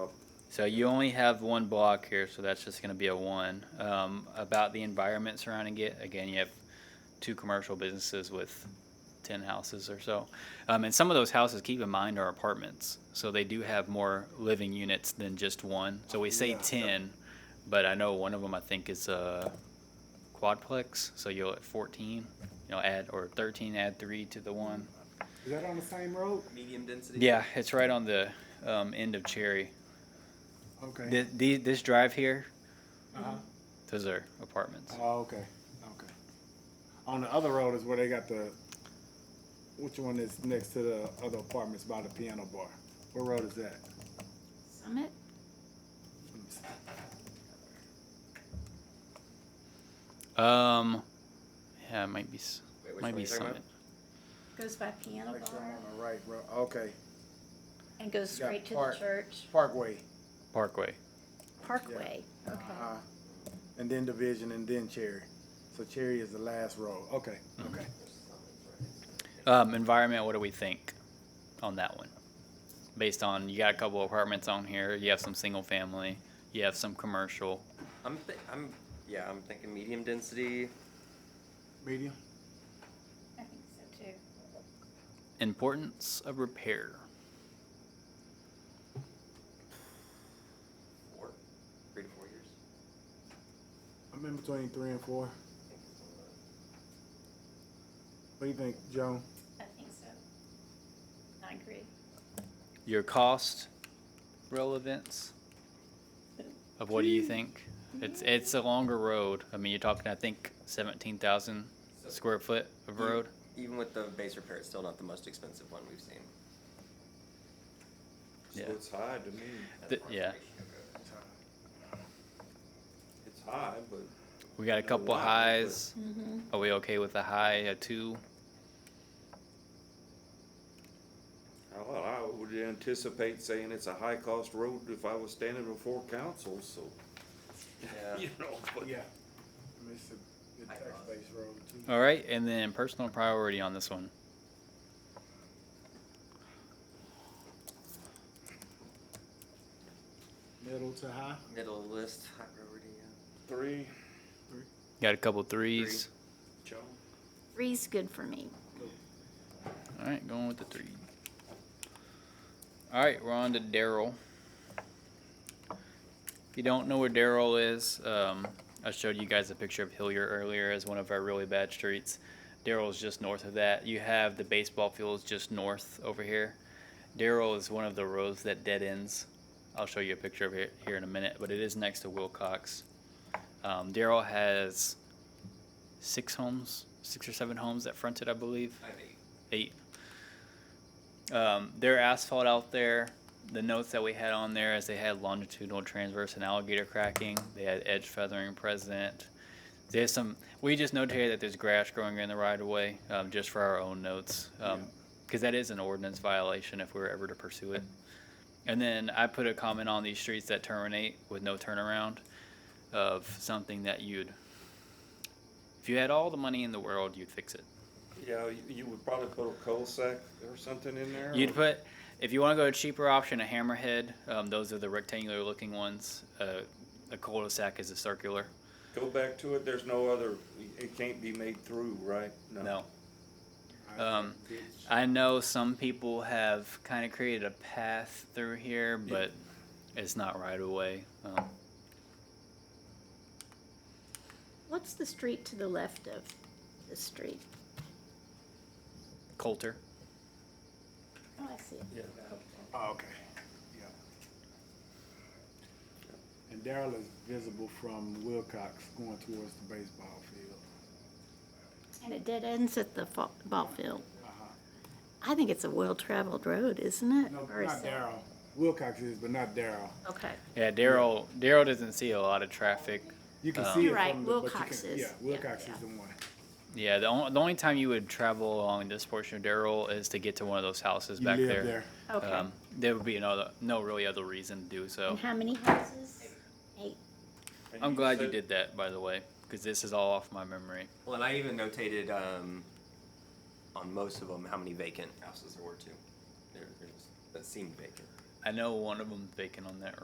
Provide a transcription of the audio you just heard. So you only have one block here, so that's just gonna be a one. Um, about the environment surrounding it, again, you have two commercial businesses with ten houses or so. Um, and some of those houses, keep in mind, are apartments, so they do have more living units than just one. So we say Yeah. ten, but I know one of them, I think, is a quadplex, so you'll at fourteen, you know, add, or thirteen, add three to the one. Is that on the same road? medium density. Yeah, it's right on the, um, end of Cherry. Okay. This, this drive here, Uh-huh. those are apartments. Uh-huh. Oh, okay, okay. On the other road is where they got the, which one is next to the other apartments by the piano bar? What road is that? Summit? Let me see. Um, yeah, it might be s- Wait, which might one be you talking about? Summit. Goes by piano Make sure bar I'm on the right road, okay, and goes Yeah, straight to the park. church. Parkway. Parkway. Parkway. Okay. Uh-huh. And then Division and then Cherry. So Cherry is the last road, okay, okay. Um, environment. What do we think on that one? Based on you got a couple apartments on here. You have some single family. You have some commercial. I'm, th- I'm, yeah, I'm thinking medium density. Medium? I think so too. Importance of repair. Four, three to four years. I'm in between three and four. What do you think, Joan? I think so. I agree. Your cost relevance of what do you think? It's it's a longer road. I mean, you're talking. I think seventeen thousand square foot of Mm. road. Even with the base repair, it's still not the most expensive one we've seen. Yeah. So it's high to me. Th- yeah. It's high, but We got a No couple lie, but- highs. Mm-hmm. Are we okay with a high, a two? well, I would anticipate saying it's a high cost road if I was standing before council, so. Yeah. You know, but Yeah. I mean, It's a, I it's a tax-based road too. All right, and then personal priority on this one. Middle to high? Middle of the list, high priority. Yeah. three, Got a couple threes. Joe, Three's good for me. All right, going with the three. All right, we're on to Daryl. If you don't know where Daryl is, um, I showed you guys a picture of Hillier earlier as one of our really bad streets. Daryl's just north of that. You have the baseball fields just north over here. Daryl is one of the roads that dead ends. I'll show you a picture of it here in a minute, but it is next to Wilcox. Um, Daryl has six homes, six or seven homes that fronted, I believe I have eight. eight. Um, their asphalt out there, the notes that we had on there is they had longitudinal transverse and alligator cracking. They had edge feathering present. There's some. We just notated that there's grass growing in the right of way, um, just for our own notes, because that is an ordinance violation if we were ever to pursue it. And then I put a comment on these streets that terminate with no turnaround, of something that you'd, if you had all the money in the world, you'd fix it. yeah, you, you would probably put a cul-de-sac or something in there. You'd or- put, if you want to go a cheaper option, a hammerhead. Um, those are the rectangular looking ones. Uh, a cul-de-sac is a circular. Go back to it, there's no other, it can't be made through, right? No. Um, I know some people have kind of created a path through here, but it's not right away. Um, What's the street to the left of the street? Coulter. Oh, I see it. Yeah. Oh, okay, yeah. And Daryl is visible from Wilcox going towards the baseball field. And it dead ends at the fa- ball field. Uh-huh. I think it's a well-traveled road, isn't it? No, Or is not it- Daryl. Wilcox is, but not Daryl. Okay. Yeah, Daryl. Daryl doesn't see a lot of traffic. You can Um, see it Oh. You're right, from the, but you Wilcox can't- is- Yeah, yeah, Wilcox yeah. is the one. Yeah, the, on, the only time you would travel along this portion of Daryl is to get to one of those houses You back live there. there. Okay. Um, oh. there would be another, no really other reason to do so. And how many houses? Eight. And I'm glad you said- did that, by the way, because this is all off my memory. Well, and I even notated um, on most of them how many vacant houses there were too. There, there's that seemed vacant. I know one of them vacant on that